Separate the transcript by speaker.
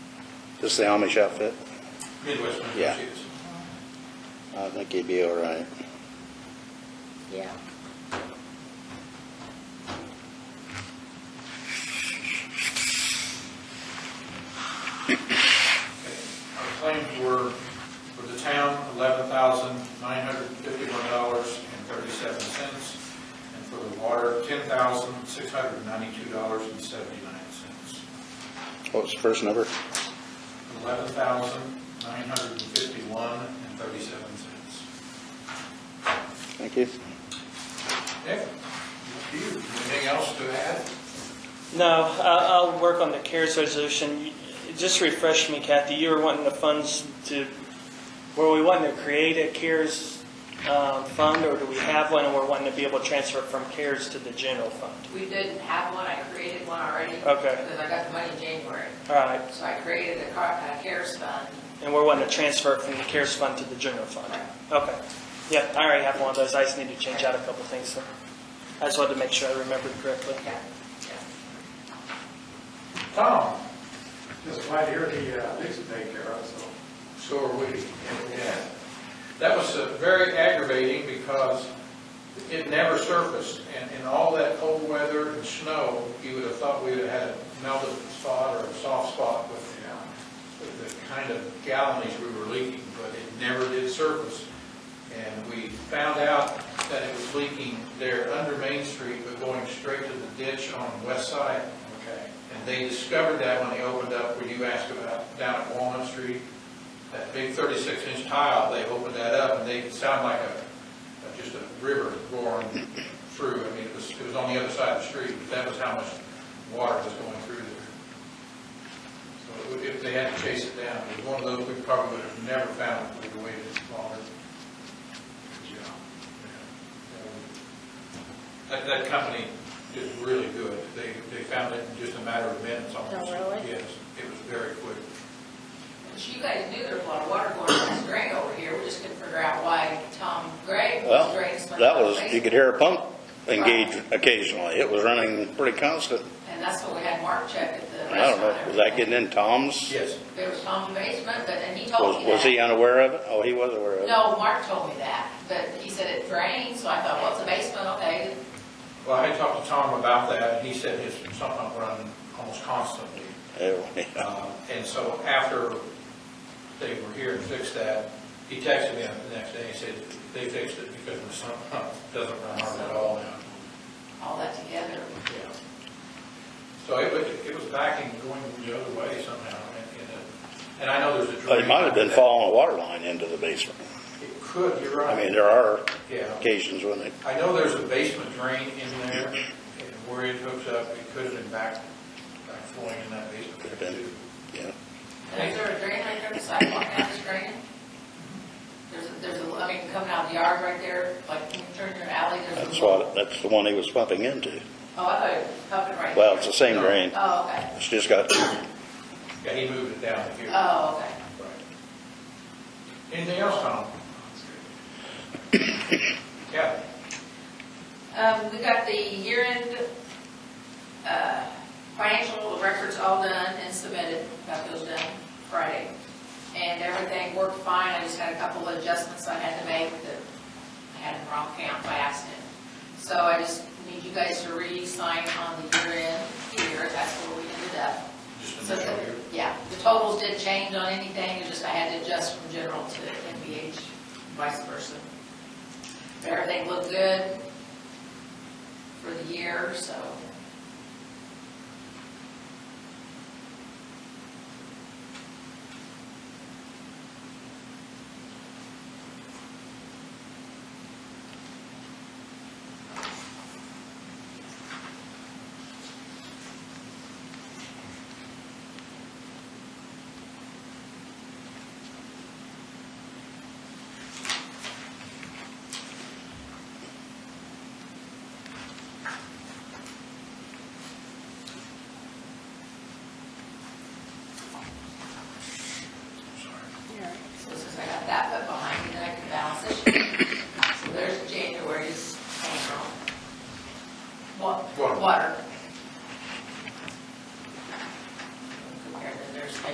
Speaker 1: This is the Amish outfit?
Speaker 2: Midwest Mining
Speaker 1: Yeah.
Speaker 2: Associates.
Speaker 1: I think he'd be all right.
Speaker 3: Yeah.
Speaker 2: Our claims were, for the town, eleven thousand nine hundred fifty-one dollars and thirty-seven cents, and for the water, ten thousand six hundred ninety-two dollars and seventy-nine cents.
Speaker 1: What was the first number?
Speaker 2: Eleven thousand nine hundred fifty-one and thirty-seven cents.
Speaker 1: Thank you.
Speaker 2: Nick, up to you. anything else to add?
Speaker 4: No, I'll, I'll work on the CARES resolution. You- Just refresh me, Kathy, you were wanting the funds to, were we wanting to create a CARES um, fund, or do we have one, and we're wanting to be able to transfer it from CARES to the general fund?
Speaker 3: We didn't have one, I created one already.
Speaker 4: Okay.
Speaker 3: Because I got the money in January,
Speaker 4: All right,
Speaker 3: so I created a car, a CARES fund.
Speaker 4: and we're wanting to transfer it from the CARES fund to the general fund? Okay. Yeah, I already have one of those, I just need to change out a couple things, so I just wanted to make sure I remembered correctly.
Speaker 3: Yeah, yeah.
Speaker 2: Tom,
Speaker 5: Just right here, the uh, Nixon daycare, so.
Speaker 2: so are we. Yeah. That was uh, very aggravating because it never surfaced, and in all that cold weather and snow, you would have thought we would have had a melted spot or a soft spot with
Speaker 5: yeah.
Speaker 2: the kind of gallonage we were leaking, but it never did surface. And we found out that it was leaking there under Main Street, but going straight to the ditch on the west side.
Speaker 5: Okay.
Speaker 2: And they discovered that when they opened up, when you asked about down at Walnut Street, that big 36-inch tile, they opened that up, and they, it sounded like a, a- just a river roaring through. I mean, it was, it was on the other side of the street, but that was how much water was going through there. So it- if they had to chase it down, it was one of those we probably would have never found if we'd waited longer. Good job. That, that company did really good. They, they found it in just a matter of minutes almost.
Speaker 3: Oh, really?
Speaker 2: Yes, it was very quick.
Speaker 3: But you guys knew there was a lot of water going on this drain over here, we just couldn't figure out why Tom Gray was
Speaker 1: Well,
Speaker 3: draining so much.
Speaker 1: that was,
Speaker 3: water.
Speaker 1: you could hear a pump engage occasionally. It was running pretty constant.
Speaker 3: And that's when we had Mark check at the
Speaker 1: I
Speaker 3: restaurant.
Speaker 1: don't know, was that getting in Tom's?
Speaker 2: Yes.
Speaker 3: There was Tom's basement, but, and he told me
Speaker 1: Was,
Speaker 3: that.
Speaker 1: was he unaware of it? Oh, he was aware of it.
Speaker 3: Oh, No, Mark told me that, but he said it drained, so I thought, well, it's a basement, okay,
Speaker 2: Well, I talked to Tom about that, and he said his sump pump run almost constantly.
Speaker 1: Oh, yeah.
Speaker 2: Um, And so after they were here and fixed that, he texted me the next day, he said, they fixed it because the sump pump doesn't run hard at all now.
Speaker 3: all that together.
Speaker 2: Yeah. So it was, it was backing, going the other way somehow, and- and, uh, and I know there's a drain.
Speaker 1: But it might have been following a water line into the basement.
Speaker 2: It could, you're
Speaker 1: I mean,
Speaker 2: right.
Speaker 1: there are
Speaker 2: Yeah.
Speaker 1: occasions when they,
Speaker 2: I know there's a basement drain in there, and where it hooks up, it could have been back, back flowing in that
Speaker 1: Could
Speaker 2: basement
Speaker 1: have
Speaker 2: there
Speaker 1: been.
Speaker 2: too.
Speaker 1: you know,
Speaker 3: And is there a drain right there, the sidewalk down this drain? There's, a- there's a, I mean, coming out of the yard right there, like, when you turn your alley, there's a.
Speaker 1: that's
Speaker 3: little-
Speaker 1: what, that's the one he was pumping into.
Speaker 3: Oh, I thought it was coming right.
Speaker 1: Well,
Speaker 3: there.
Speaker 1: it's the same drain.
Speaker 3: Oh, okay,
Speaker 1: It's just got,
Speaker 2: Yeah, he moved it down here.
Speaker 3: oh, okay.
Speaker 2: Right. Anything else, Tom? Yeah,
Speaker 3: Um, we got the year-end, uh, financial records all done and submitted, got those done Friday. And everything worked fine, I just had a couple of adjustments I had to make that I had in the wrong count by accident. So I just need you guys to re-sign on the year-end here, that's where we ended up.
Speaker 2: just
Speaker 3: So,
Speaker 2: a minute here.
Speaker 3: yeah, the totals didn't change on anything, it's just I had to adjust from general to NVH, vice versa. But Everything looked good for the year, so